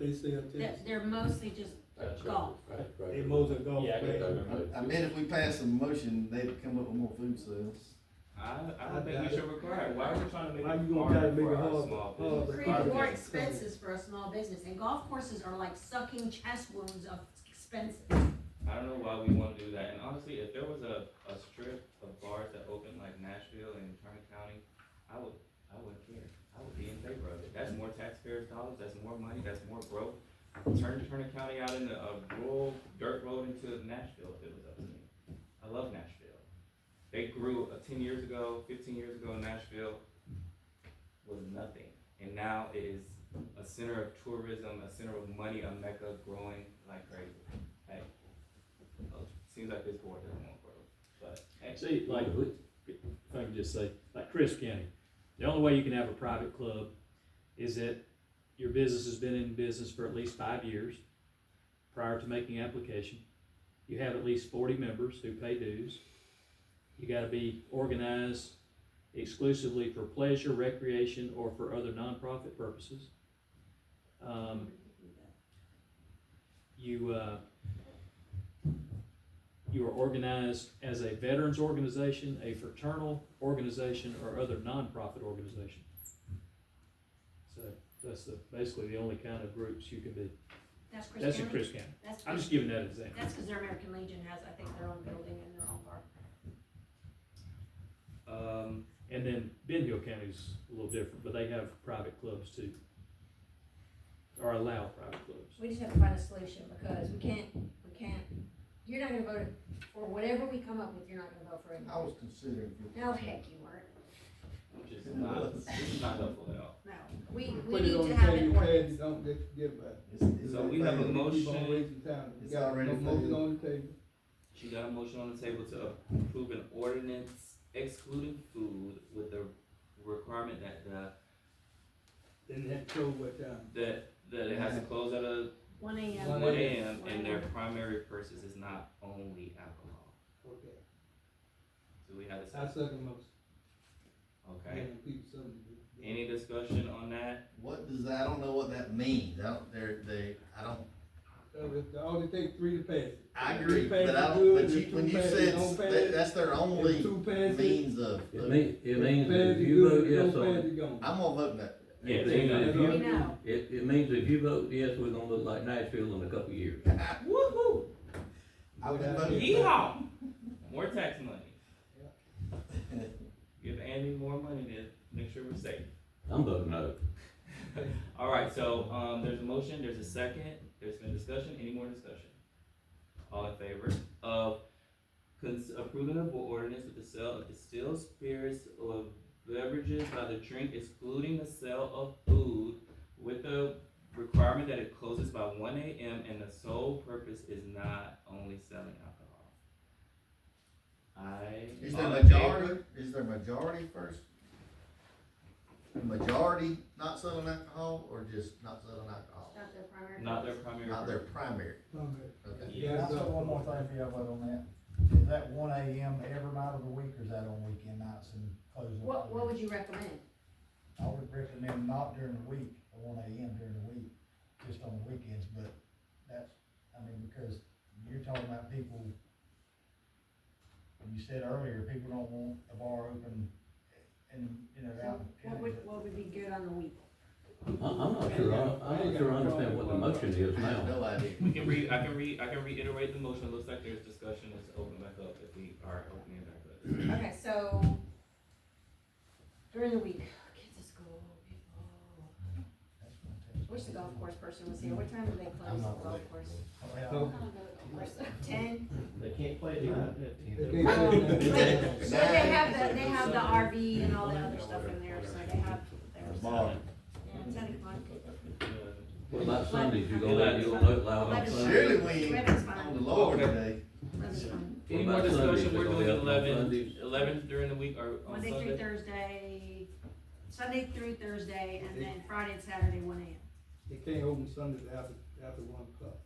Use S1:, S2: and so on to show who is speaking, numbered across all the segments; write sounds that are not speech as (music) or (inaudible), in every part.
S1: They sell tickets.
S2: They're, they're mostly just
S3: That's right.
S2: Golf.
S3: Right, right.
S1: They mows a golf
S3: Yeah, I got
S1: bag.
S3: that.
S4: I, I bet if we pass a motion, they'd come up with more food sales.
S5: I, I don't think we should require it. Why are we trying to make
S1: Why
S5: it
S1: you gonna try to
S5: harder
S1: make it
S5: for our
S1: hard- hard?
S5: small business?
S2: create more
S1: Okay.
S2: expenses for a small business, and golf courses are like sucking chest wounds of expenses.
S5: I don't know why we want to do that. And honestly, if there was a, a strip of bars that opened like Nashville and Turner County, I would, I wouldn't care. I would be in favor of it. That's more taxpayers' dollars, that's more money, that's more growth. Turn Turner County out into a rural dirt road into Nashville if it was up to me. I love Nashville. They grew uh, ten years ago, fifteen years ago, Nashville was nothing. And now it is a center of tourism, a center of money, a mecca growing like crazy. Like, Oh, Seems like this board doesn't want growth, but, hey,
S6: See, like, if I can just say, like Chris County, the only way you can have a private club is that your business has been in business for at least five years prior to making application. You have at least forty members who pay dues. You gotta be organized exclusively for pleasure, recreation, or for other nonprofit purposes. Um, you, uh, you are organized as a veterans organization, a fraternal organization, or other nonprofit organization. So that's the, basically the only kind of groups you can be.
S2: That's Chris
S6: That's in
S2: County,
S6: Chris County.
S2: that's,
S6: I'm just giving that example.
S2: that's because their American Legion has, I think, their own building and their own bar.
S5: um,
S6: And then Ben Hill County's a little different, but they have private clubs too. Or allow private clubs.
S2: We just have to find a solution, because we can't, we can't, you're not gonna vote for whatever we come up with, you're not gonna vote for it.
S4: I was considering. for-
S2: No, heck, you weren't,
S5: I'm just not, this is not helpful at all.
S2: no, we, we
S1: Put it
S2: need
S1: on
S2: to
S1: the
S2: have
S1: table,
S2: an
S1: you said you
S2: ordinance.
S1: don't get, get back.
S4: It's- it's
S5: So we have a
S4: like-
S5: mo-
S1: You keep on
S5: Motion.
S1: wasting time. You
S4: It's
S1: got
S4: already
S1: no motion
S4: failed.
S1: on the table.
S5: She got a motion on the table to approve an ordinance excluding food with the requirement that the,
S1: Then that close what time?
S5: that, that it has to close at a
S2: One
S1: One
S2: AM,
S5: one AM and their
S2: Wow.
S5: primary purpose is not only alcohol.
S1: Okay.
S5: Do we have a
S1: I
S5: second?
S1: second motion.
S5: Okay,
S1: Giving people something to do.
S5: any discussion on that?
S4: What does, that- I don't know what that means. I don't, they're, they, I don't,
S1: So it only take three to pass it.
S4: I
S1: If
S4: agree,
S1: two pass
S4: but I
S1: it
S4: don't,
S1: good,
S4: but
S1: if
S4: you,
S1: two
S4: when you
S1: pass it
S4: said,
S1: don't pass
S4: s- that,
S1: it,
S4: that's their
S1: If
S4: only
S1: two pass it.
S4: means of,
S7: It means, it means
S1: pass
S7: that if
S1: it
S7: you
S1: good,
S7: vote yes
S1: don't pass
S7: on,
S1: it, gone.
S4: I'm gonna vote no.
S5: Yeah,
S7: it
S5: they
S7: means
S5: know.
S7: if
S2: we
S7: you,
S2: know,
S7: it, it means if you vote yes, we're gonna look like Nashville in a couple of years.
S5: Woo-hoo!
S4: I would
S1: Without
S4: vote.
S1: it.
S5: Yeehaw! More tax money. (laughs) Give Andy more money to make sure we're safe.
S7: I'm voting no.
S5: All right, so, um, there's a motion, there's a second, there's been discussion, any more discussion? All in favor of cons- approving of ordinance with the sale of distilled spirits or beverages by the drink excluding the sale of food with the requirement that it closes by one AM and the sole purpose is not only selling alcohol. I.
S4: Is there
S5: all in favor?
S4: majority, is there majority first? Majority not selling alcohol or just not selling alcohol?
S2: it's not their primary.
S5: Not their primary.
S4: Not their primary,
S1: Alright.
S4: okay.
S5: Yeah.
S8: Can I say one more thing for y'all vote on that? Is that one AM every night of the week or is that on weekend nights and closing?
S2: What, what would you recommend?
S8: I would recommend not during the week, the one AM during the week, just on the weekends, but that's, I mean, because you're talking about people, you said earlier, people don't want a bar open and, you know, out.
S2: What would, what would be good on the week?
S7: I'm, I'm not sure, I- I'm not sure I understand what the motion is
S4: I have
S7: now.
S4: no idea.
S5: We can re, I can re, I can reiterate the motion, it looks like there's discussion, let's open back up if we are opening it back up.
S2: Okay, so during the week, oh, kids at school, people.
S8: That's what I'm
S2: Wish the golf course person was here. What time do they close
S4: I'm
S2: the
S4: not
S2: golf
S4: late.
S2: course?
S8: telling you.
S2: I
S1: So-
S2: don't know the golf course. Ten?
S3: They can't play
S1: If
S3: it.
S1: they say
S2: Oh.
S1: that-
S2: So they have the, they have the RV and all that other stuff in there, so they have. their
S4: Bar.
S2: Yeah, ten o'clock.
S7: What about Sundays, you gonna let you vote loud on Sundays?
S4: Surely we ain't
S2: Reverend's fine.
S4: on the Lord
S5: Okay.
S4: today.
S2: That's fine.
S7: What
S5: Any more
S7: about Sundays?
S5: discussion,
S7: They
S5: we're
S7: gonna
S5: doing
S7: be open on
S5: eleven,
S7: Sundays?
S5: eleven during the week or on
S2: Monday through
S5: Sunday?
S2: Thursday, Sunday through Thursday, and then Friday and Saturday, one AM.
S1: They can't open Sundays after, after one o'clock.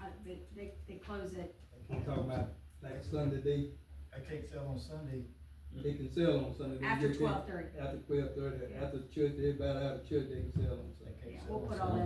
S2: Uh, they, they, they close it.
S8: They
S1: I'm
S8: can't-
S1: talking about like Sunday, they
S8: They can't sell on Sunday
S1: They can sell on Sunday. They
S2: after
S1: get there
S2: twelve thirty.
S1: After twelve thirty, after church, everybody out of church, they can sell on Sunday.
S8: They can't
S2: Yeah,
S8: sell
S2: we'll
S8: on
S2: put all
S8: Sunday.